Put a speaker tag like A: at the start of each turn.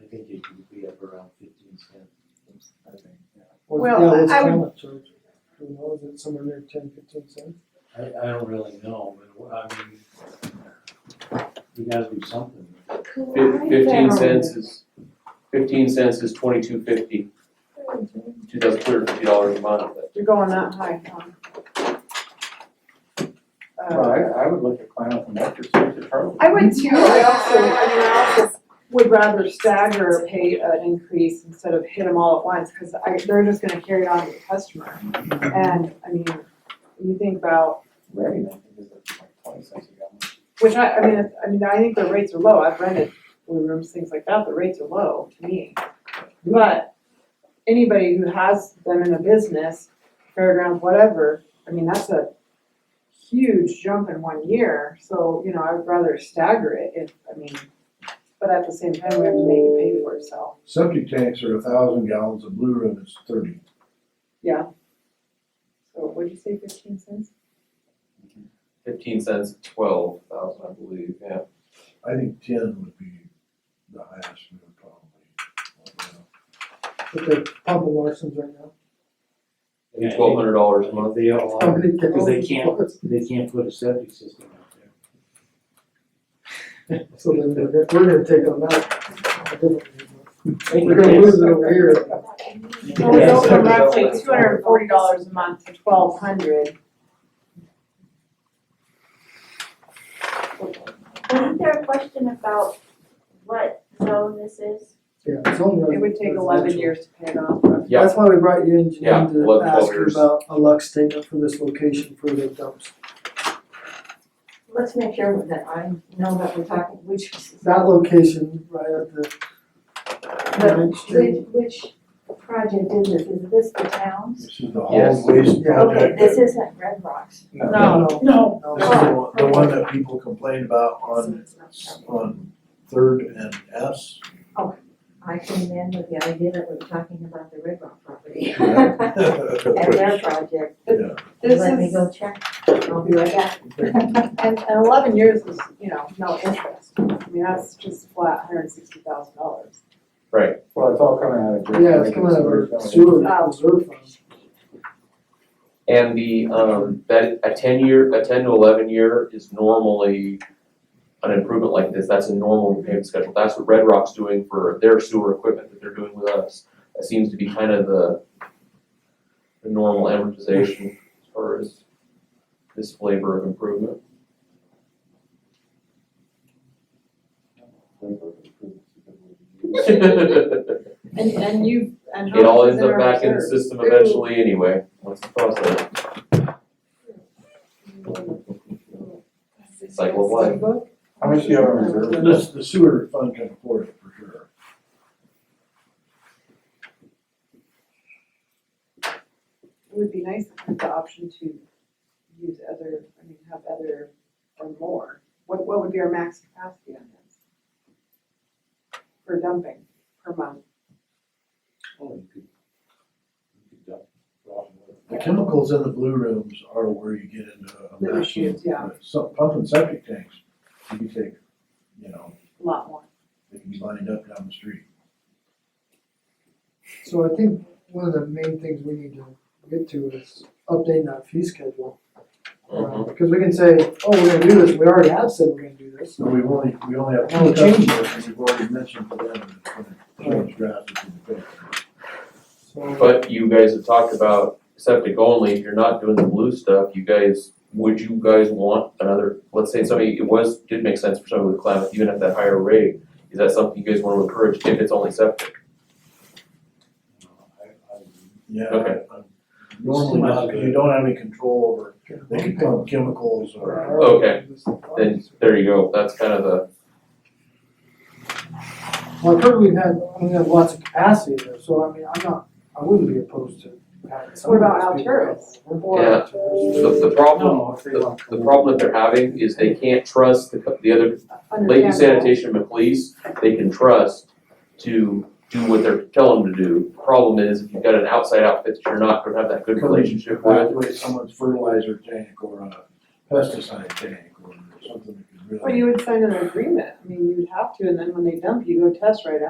A: I think it would be up around fifteen cents, I think.
B: Or
C: Well,
B: now it's
C: I would-
B: common charge. Who knows, it's somewhere near ten, fifteen cents.
A: I, I don't really know, but I mean, you gotta do something.
D: Fif- Fifteen cents is, fifteen cents is twenty-two fifty, two thousand two hundred fifty dollars a month.
C: You're going that high, huh?
E: Well,
C: Uh,
E: I, I would look at Climate from that perspective, probably.
C: I would too, I also, I mean, I also would rather stagger pay an increase instead of hit them all at once, cause I, they're just gonna carry on with the customer. And, I mean, you think about,
E: Ready, I think it's like twenty cents a gallon.
C: which I, I mean, it's- I mean, I think the rates are low, I've rented blue rooms, things like that, the rates are low to me. But anybody who has them in a business, fairgrounds, whatever, I mean, that's a huge jump in one year, so, you know, I would rather stagger it if, I mean, but at the same time, we have to make it pay for itself.
F: Septic tanks are a thousand gallons, a blue room is thirty.
C: So what'd you say, fifteen cents?
D: Fifteen cents, twelve thousand, I believe, yeah.
F: I think ten would be the highest we would probably.
B: But they're pumping Larson's right now.
A: Yeah, I think-
D: Twelve hundred dollars a month.
A: They all
B: How
A: are,
B: many gallons
A: because they
B: is
A: can't,
B: Larson?
A: they can't put a septic system out there.
B: So then we're gonna, we're gonna take on that. We're gonna lose it over here.
C: It would go from
D: Yeah.
C: roughly two hundred and forty dollars a month to twelve hundred.
G: Wasn't there a question about what zone this is?
B: Yeah, it's only.
C: It would take eleven years to pay it off.
D: Yeah.
B: That's why we brought you in,
D: Yeah,
B: Janine, to
D: 11, 12
B: ask you
D: years.
B: about a Lux statement for this location for the dumps.
H: Let's make sure that I know that we're talking, which,
B: That location right at the. Ninth Street.
H: which, which project is this? Is this the town's?
F: This is the
D: Yes.
F: hall waste
H: Okay,
F: project.
H: this isn't Red Rocks.
C: No. Oh.
F: No.
B: No.
F: This is the the one that people complain about on, on Third and S.
H: I came in with the idea that we're talking about the Red Rock property.
F: Yeah.
H: And their project.
F: Yeah.
C: This
H: Let me
C: is-
H: go check. I'll be right back.
C: And, and eleven years is, you know, no interest, I mean, that's just flat, hundred and sixty thousand dollars.
E: Well, it's all coming out of. Drake
B: Yeah, it's
E: Lake
B: coming out of
E: Sewer
B: our
E: Fund.
B: sewer
C: Oh.
B: reserve fund.
D: And the, um, that, a ten year, a ten to eleven year is normally an improvement like this, that's a normal repayment schedule, that's what Red Rock's doing for their sewer equipment that they're doing with us. That seems to be kind of the, the normal amortization as far as this flavor of improvement. It
C: And, and you, and how
D: all
C: much is
D: ends
C: in
D: up
C: our
D: back in the
C: reserve?
D: system eventually anyway, once the process. Cycle of life.
E: How much do you have in reserve?
F: This, the sewer fund can afford it for sure.
C: It would be nice to have the option to use other, I mean, have other or more, what, what would be our max capacity on this? For dumping per month,
A: Oh, you could, you could dump raw water.
F: The chemicals in the blue rooms are where you get into a
C: The
F: mess.
C: issues, yeah.
F: Some pump and septic tanks, you can take, you know,
C: a lot more.
F: they can be lined up down the street.
B: So I think one of the main things we need to get to is updating that fee schedule. Uh,
D: Mm-hmm.
B: Because we can say, oh, we're gonna do this, we already have said we're gonna do this.
F: So we only, we only have
B: Only
F: two
B: change.
F: customers, and we've already mentioned to them that it's gonna change drastically. the picture.
B: So
D: But you guys have talked about septic only, if you're not doing the blue stuff, you guys, would you guys want another, let's say somebody, it was, did make sense for somebody with climate, even at that higher rate, is that something you guys wanna encourage if it's only septic?
A: I- I-
F: Yeah.
D: Okay.
F: I'm Normally not, because you don't have any control over, they can pump chemicals or,
D: Okay, Then, there you go, that's kind of the,
B: Well, I've heard we've had, I mean, we have lots of capacity there, so I mean, I'm not, I wouldn't be opposed to having some
C: What about
B: of these
C: Alturas?
B: people.
C: Or-
D: Yeah. the, the problem,
A: No, if they
D: the,
A: want to-
D: the problem that they're having is they can't trust the, co- the other Lady
C: Understandable.
D: Sanitation and Police, they can trust to do what they're telling them to do. The Problem is, if you've got an outside outfit that you're not gonna have that good relationship with,
F: evaluate someone's fertilizer tank or a pesticide tank or something that could really.
C: Well, you would sign an agreement, I mean, you would have to, and then when they dump you, go test right